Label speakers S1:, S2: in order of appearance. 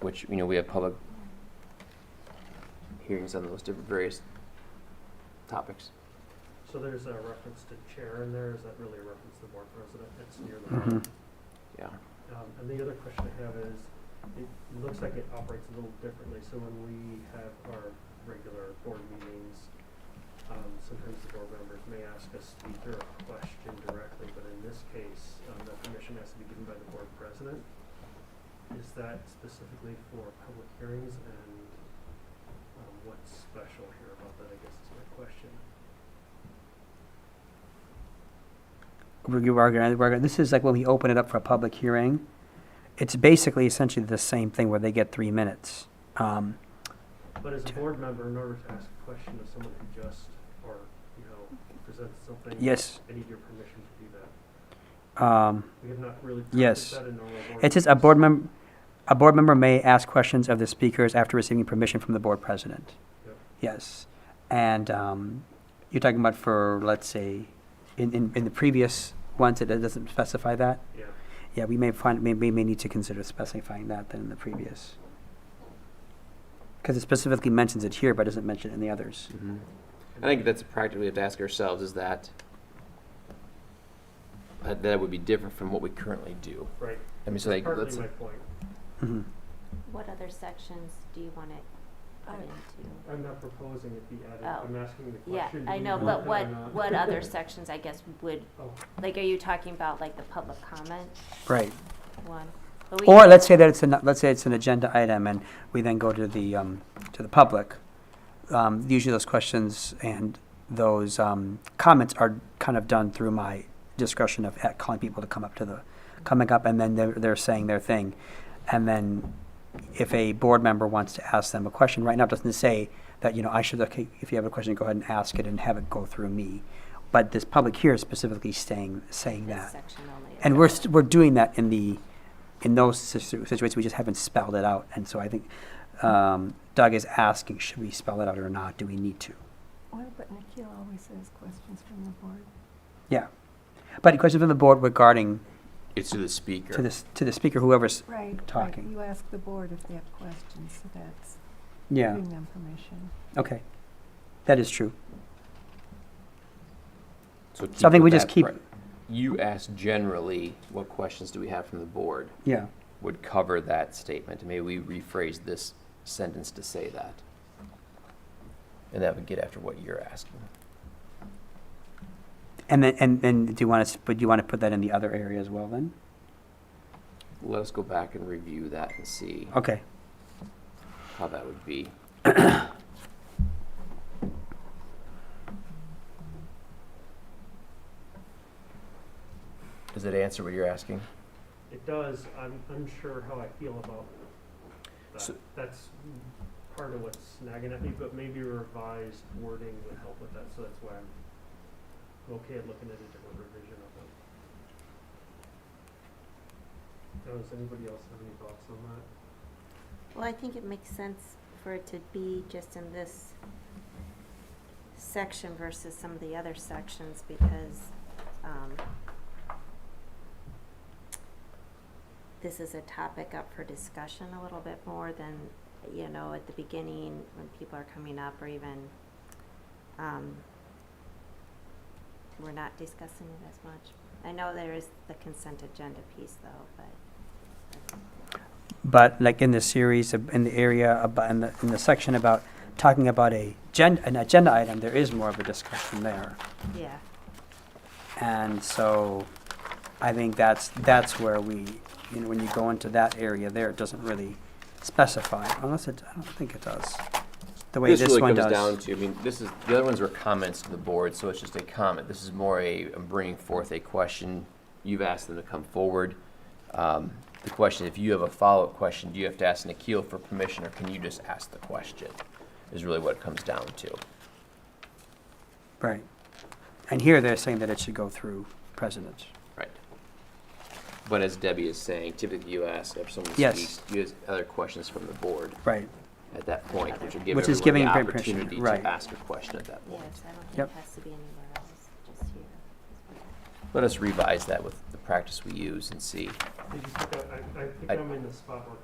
S1: which, you know, we have public hearings on those different various topics.
S2: So there's a reference to chair in there, is that really a reference to board president? It's near the bottom.
S1: Yeah.
S2: Um, and the other question I have is, it looks like it operates a little differently, so when we have our regular board meetings, um, sometimes the board members may ask a speaker a question directly, but in this case, um, the permission has to be given by the board president. Is that specifically for public hearings and, um, what's special here about that, I guess is my question.
S3: We're g- we're gonna- we're gonna- This is like when we open it up for a public hearing. It's basically essentially the same thing where they get three minutes. Um,
S2: But as a
S3: Sure.
S2: board member, in order to ask a question of someone who just, or, you know, presents something.
S3: Yes.
S2: I need your permission to do that.
S3: um,
S2: We have not really practiced
S3: Yes.
S2: that in normal board.
S3: It says a board
S2: meetings.
S3: member, a board member may ask questions of the speakers after receiving permission from the board president.
S2: Yep.
S3: Yes, and um, you're talking about for, let's say, in, in, in the previous ones, it doesn't specify that?
S2: Yeah,
S3: Yeah, we may find, may, may, may need to consider specifying that than in the previous. Because it specifically mentions it here, but doesn't mention it in the others.
S1: I think that's a practice we have to ask ourselves, is that, uh, that would be different from what we currently do.
S2: right.
S1: I mean, so like, let's,
S2: Partly my point.
S3: Mhm.
S4: What other sections do you want it put into?
S2: I'm not proposing it be added.
S4: Oh.
S2: I'm asking the
S4: Yeah,
S2: question.
S4: I
S2: do you
S4: know,
S2: want
S4: but
S2: it or
S4: what,
S2: not?
S4: what other sections, I guess, would,
S2: Oh,
S4: like, are you talking about, like, the public comment
S3: Right.
S4: one? But we
S3: Or
S4: can-
S3: let's say that it's an, let's say it's an agenda item and we then go to the, um, to the public. Um, usually those questions and those, um, comments are kind of done through my discussion of uh, calling people to come up to the, coming up and then they're, they're saying their thing. And then if a board member wants to ask them a question, right now it doesn't say that, you know, I should, okay, if you have a question, go ahead and ask it and have it go through me. But this public here is specifically saying, saying that.
S4: This section only. is
S3: And we're,
S4: relevant.
S3: st- we're doing that in the, in those situ- situations, we just haven't spelled it out. And so I think um, Doug is asking, should we spell it out or not? Do we need to?
S5: Why, but Nikhil always has questions from the board.
S3: Yeah. But a question from the board regarding
S1: it's to the speaker.
S3: to this, to the speaker, whoever's,
S5: Right.
S3: Talking.
S5: You ask the board if they have questions, so that's
S3: yeah,
S5: giving them permission.
S3: okay. That is true.
S1: So keep
S3: So I think
S1: with
S3: we just
S1: that
S3: keep,
S1: pri- You asked generally, what questions do we have from the board?
S3: yeah,
S1: Would cover that statement. Maybe we rephrase this sentence to say that. And that would get after what you're asking.
S3: and then, and, and do you want to, but do you want to put that in the other area as well then?
S1: Let us go back and review that and see
S3: Okay,
S1: how that would be. Does it answer what you're asking?
S2: It does. I'm unsure how I feel about that.
S1: So-
S2: That's part of what's nagging at me, but maybe revised wording would help with that, so that's why I'm I'm okay at looking at a different revision of it. Now, does anybody else have any thoughts on that?
S4: Well, I think it makes sense for it to be just in this section versus some of the other sections because, um, this is a topic up for discussion a little bit more than, you know, at the beginning when people are coming up or even, um, we're not discussing it as much. I know there is the consent agenda piece though, but
S3: but like in the series, ab- in the area, about, in the, in the section about talking about a gen, an agenda item, there is more of a discussion there.
S4: yeah.
S3: And so I think that's, that's where we, you know, when you go into that area there, it doesn't really specify, unless it, I don't think it does. The way
S1: This
S3: this
S1: really
S3: one
S1: comes
S3: does.
S1: down to, I mean, this is, the other ones were comments to the board, so it's just a comment. This is more a, I'm bringing forth a question. You've asked them to come forward. Um, The question, if you have a follow-up question, do you have to ask Nikhil for permission, or can you just ask the question? Is really what it comes down to.
S3: Right. And here they're saying that it should go through president.
S1: Right. But as Debbie is saying, typically you ask if someone
S3: Yes.
S1: speaks, you ask other questions from the board
S3: Right.
S1: at that point, which would give
S3: Which is
S1: everyone the
S3: giving permission,
S1: opportunity
S3: right.
S1: to ask a question at that point.
S4: Yes, I don't
S3: Yep.
S4: think it has to be anywhere else, just here.
S1: Let us revise that with the practice we use and see.
S2: Did you pick up, I, I think
S1: I-
S2: I'm in the spot where